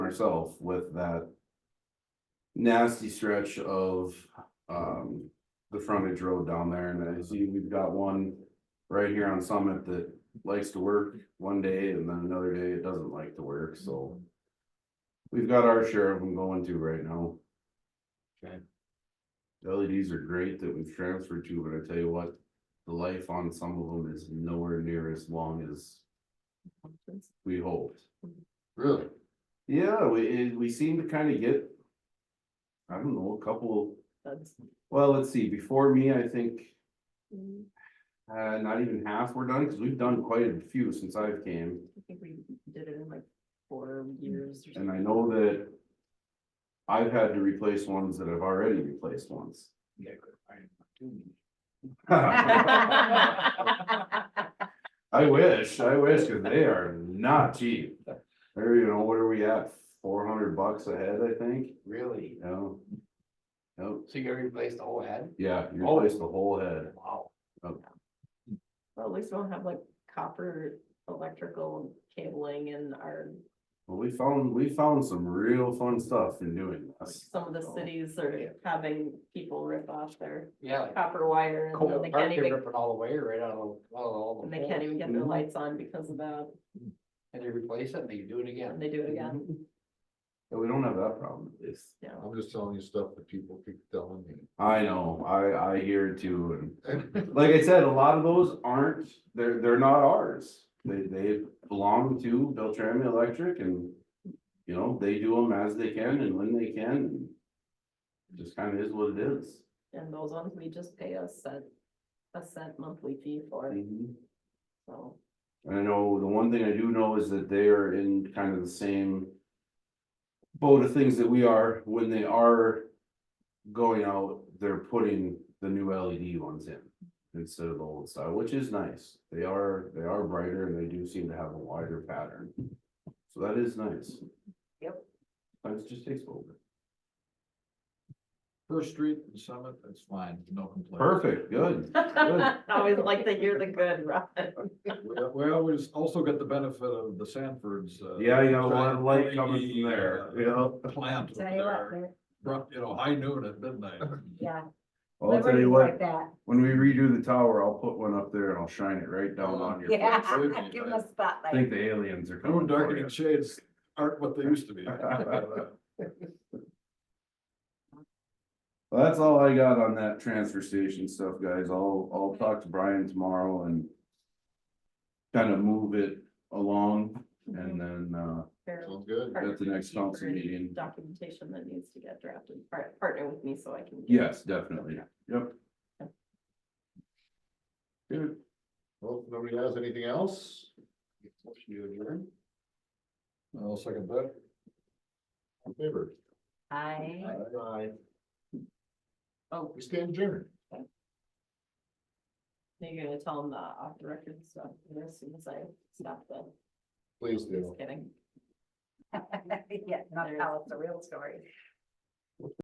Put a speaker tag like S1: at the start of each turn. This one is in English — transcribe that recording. S1: ourselves with that. Nasty stretch of um the frontage road down there and I see we've got one. Right here on Summit that likes to work one day and then another day it doesn't like to work, so. We've got our share of them going to right now.
S2: Okay.
S1: The LEDs are great that we've transferred to, but I tell you what, the life on some of them is nowhere near as long as we hoped.
S2: Really?
S1: Yeah, we, it- we seem to kind of get. I don't know, a couple, well, let's see, before me, I think,
S3: I
S1: uh, not even half were done, because we've done quite a few since I've came.
S3: think we did it in like four
S1: Mm.
S3: years or
S1: And I
S3: something.
S1: know that. I've had to replace ones that I've already replaced once.
S2: Yeah. I-
S1: I wish, I wish, because they are not cheap. Or, you know, what are we at? Four hundred bucks a head, I think,
S2: Really?
S1: you know? Nope,
S2: So you gotta replace the whole head?
S1: yeah, you replace the whole head.
S2: Wow.
S3: Well, at least we don't have like copper electrical cabling in our,
S1: Well, we found, we found some real fun stuff in doing this.
S3: some of the cities are having people rip off their
S2: Yeah. like
S3: copper wire and then
S2: Cole
S3: they
S2: Park,
S3: can't
S2: they're
S3: even,
S2: ripping all the way right out of, out of all the.
S3: and they can't
S2: poles.
S3: even get their
S1: Mm-hmm.
S3: lights on because of that,
S2: And they replace it and they do it again.
S3: and they do it
S1: Mm-hmm.
S3: again,
S1: Yeah, we don't have that problem. It's,
S3: you know.
S4: I'm just telling you stuff that people keep telling me.
S1: I know, I, I hear it too, and like I said, a lot of those aren't, they're, they're not ours. They, they belong to Beltrami Electric and, you know, they do them as they can and when they can. and Just kind of is what it is.
S3: And those ones, we just pay a set, a set monthly fee for,
S1: And
S3: so.
S1: I know, the one thing I do know is that they are in kind of the same boat of things that we are, when they are going out, they're putting the new LED ones in instead of the old style, which is nice. They are, they are brighter and they do seem to have a wider pattern. So that is nice.
S3: Yep.
S1: Sometimes it just takes over.
S4: First Street and Summit, that's fine, no complaint.
S1: Perfect, good.
S3: I always like to hear the good, Robin.
S4: Well, We always also get the benefit of the Sanford's. uh,
S1: Yeah, you got a lot of light coming from
S4: uh,
S1: there, you know?
S4: Plant over there, from, you know, high noon at midnight.
S3: Yeah.
S1: Well, I'll tell you what, when we redo the tower, I'll put one up there and I'll shine it right down on your. face.
S4: Yeah, give 'em a
S1: I
S3: spotlight.
S1: think the aliens are
S4: No
S1: coming for
S4: darkening
S1: you.
S4: shades aren't what they used to be.
S1: Well, that's all I got on that transfer station stuff, guys. I'll, I'll talk to Brian tomorrow and kind of move it along and then, uh,
S4: Sounds good.
S1: at the next council meeting.
S3: Documentation that needs to get drafted, Par- partner with me so I can. get-
S1: yes, definitely. Yep. Good.
S4: Well, if nobody has anything else? Motion to adjourn? I'll second that. In favor?
S3: I.
S4: Aye.
S3: Oh,
S4: We stand adjourned.
S3: now you're gonna tell them the off the record stuff as soon as I stop the,
S4: Please
S3: just kidding. Yeah, not tell us the real story.